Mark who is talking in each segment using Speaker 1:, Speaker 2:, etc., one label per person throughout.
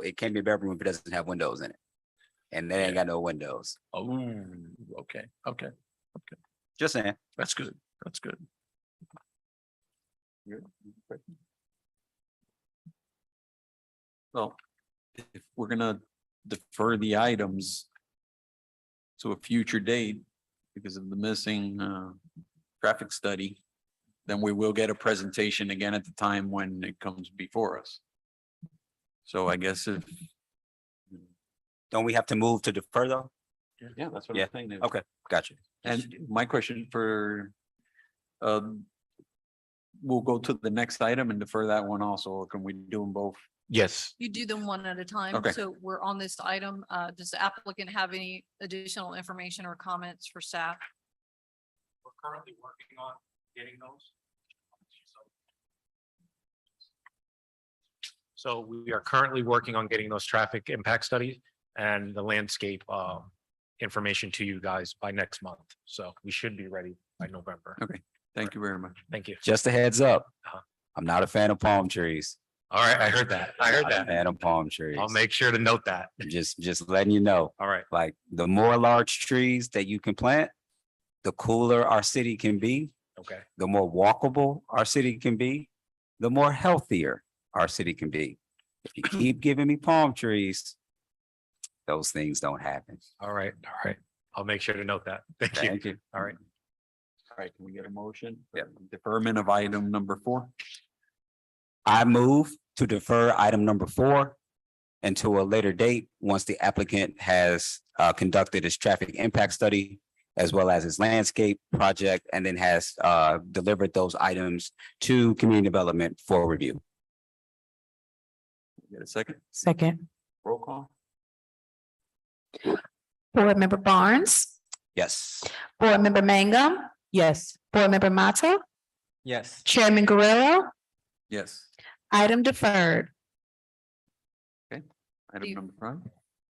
Speaker 1: it can't be a bedroom if it doesn't have windows in it. And they ain't got no windows.
Speaker 2: Oh, okay, okay,
Speaker 1: Just saying.
Speaker 2: that's good, that's good.
Speaker 3: Well, if we're gonna defer the items to a future date because of the missing uh traffic study, then we will get a presentation again at the time when it comes before us. So I guess if.
Speaker 1: Don't we have to move to defer though?
Speaker 3: Yeah, that's
Speaker 1: I'm Yeah,
Speaker 3: saying.
Speaker 1: okay. Gotcha.
Speaker 3: And my question for um we'll go to the next item and defer that one also, or can we do them both?
Speaker 2: Yes,
Speaker 4: You do them one at a time.
Speaker 3: Okay.
Speaker 4: So we're on this item. Uh, does the applicant have any additional information or comments for staff?
Speaker 5: We're currently working on getting those. So we are currently working on getting those traffic impact studies and the landscape um, information to you guys by next month. So we should be ready by November.
Speaker 3: Thank you very much.
Speaker 5: Thank you.
Speaker 1: Just a heads up.
Speaker 5: Uh-huh.
Speaker 1: I'm not a fan of palm trees.
Speaker 5: All right, I heard that. I heard
Speaker 1: Not a
Speaker 5: that.
Speaker 1: Fan of palm trees.
Speaker 5: I'll make sure to note that.
Speaker 1: Just, just letting you know,
Speaker 5: All right.
Speaker 1: like the more large trees that you can plant, the cooler our city can be.
Speaker 5: Okay.
Speaker 1: the more walkable our city can be, the more healthier our city can be. If you keep giving me palm trees, those things don't happen.
Speaker 5: All right. All right. I'll make sure to note that. Thank you.
Speaker 1: Thank you.
Speaker 5: All right.
Speaker 3: All right, can we get a motion? Yeah. Deferment of item number four.
Speaker 1: I move to defer item number four until a later date, once the applicant has uh conducted his traffic impact study as well as his landscape project and then has uh delivered those items to community development for review.
Speaker 3: Get a second,
Speaker 6: Second.
Speaker 3: roll call?
Speaker 6: Board Member Barnes,
Speaker 1: Yes.
Speaker 6: Board Member Mangum. Yes. Board Member Mata,
Speaker 3: Yes.
Speaker 6: Chairman Guerrero,
Speaker 3: Yes.
Speaker 6: item deferred.
Speaker 3: Item
Speaker 4: You-
Speaker 3: number five.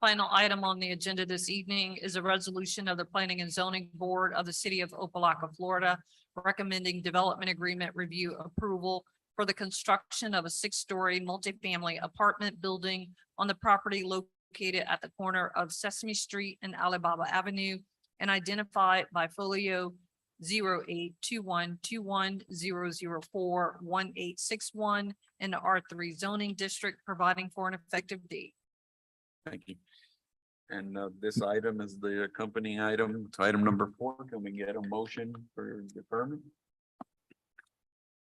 Speaker 4: Final item on the agenda this evening is a resolution of the Planning and Zoning Board of the City of Opelika, Florida, recommending development agreement review approval for the construction of a six-story multifamily apartment building on the property located at the corner of Sesame Street and Alibaba Avenue and identified by folio 08212100411861 in the R three zoning district, providing for an effective date.
Speaker 3: Thank you. And uh, this item is the accompanying item to item number four. Can we get a motion for deferment?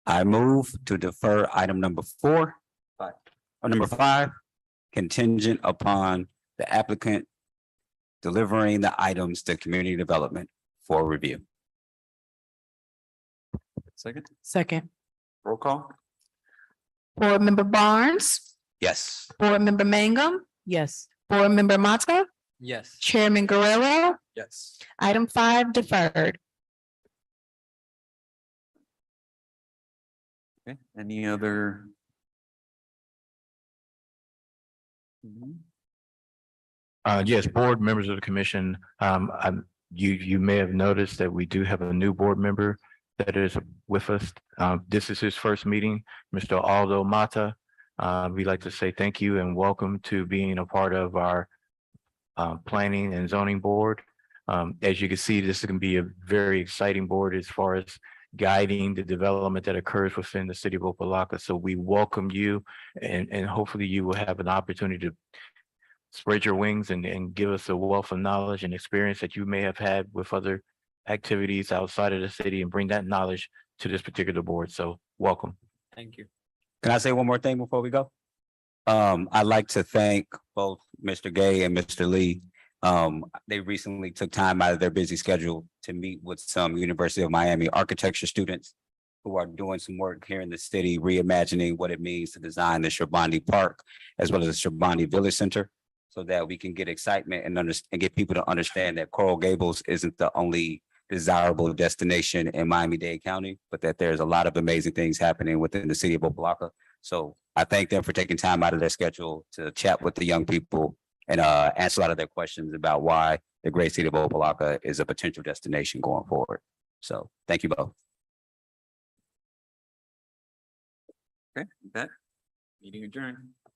Speaker 1: I move to defer item number four.
Speaker 3: Five.
Speaker 1: Or number five, contingent upon the applicant delivering the items to community development for review.
Speaker 3: Second,
Speaker 6: Second.
Speaker 3: roll call?
Speaker 6: Board Member Barnes,
Speaker 1: Yes.
Speaker 6: Board Member Mangum. Yes. Board Member Mata,
Speaker 3: Yes.
Speaker 6: Chairman Guerrero,
Speaker 3: Yes.
Speaker 6: item five deferred.
Speaker 3: Okay, any other? Mhm.
Speaker 5: Uh, yes, board members of the commission, um, I'm, you, you may have noticed that we do have a new board member that is with us. Uh, this is his first meeting, Mr. Aldo Mata. Uh, we'd like to say thank you and welcome to being a part of our uh, planning and zoning board. Um, as you can see, this is going to be a very exciting board as far as guiding the development that occurs within the city of Opalaka. So we welcome you and, and hopefully you will have an opportunity to spread your wings and, and give us a wealth of knowledge and experience that you may have had with other activities outside of the city and bring that knowledge to this particular board. So welcome.
Speaker 3: Thank you.
Speaker 1: Can I say one more thing before we go? Um, I'd like to thank both Mr. Gay and Mr. Lee. Um, they recently took time out of their busy schedule to meet with some University of Miami architecture students who are doing some work here in the city, reimagining what it means to design the Shabani Park as well as the Shabani Village Center so that we can get excitement and under, and get people to understand that Coral Gables isn't the only desirable destination in Miami-Dade County, but that there's a lot of amazing things happening within the city of Opa-locka. So I thank them for taking time out of their schedule to chat with the young people and uh answer a lot of their questions about why the great city of Opa-locka is a potential destination going forward. So thank you both.
Speaker 3: Okay, with that meeting adjourned.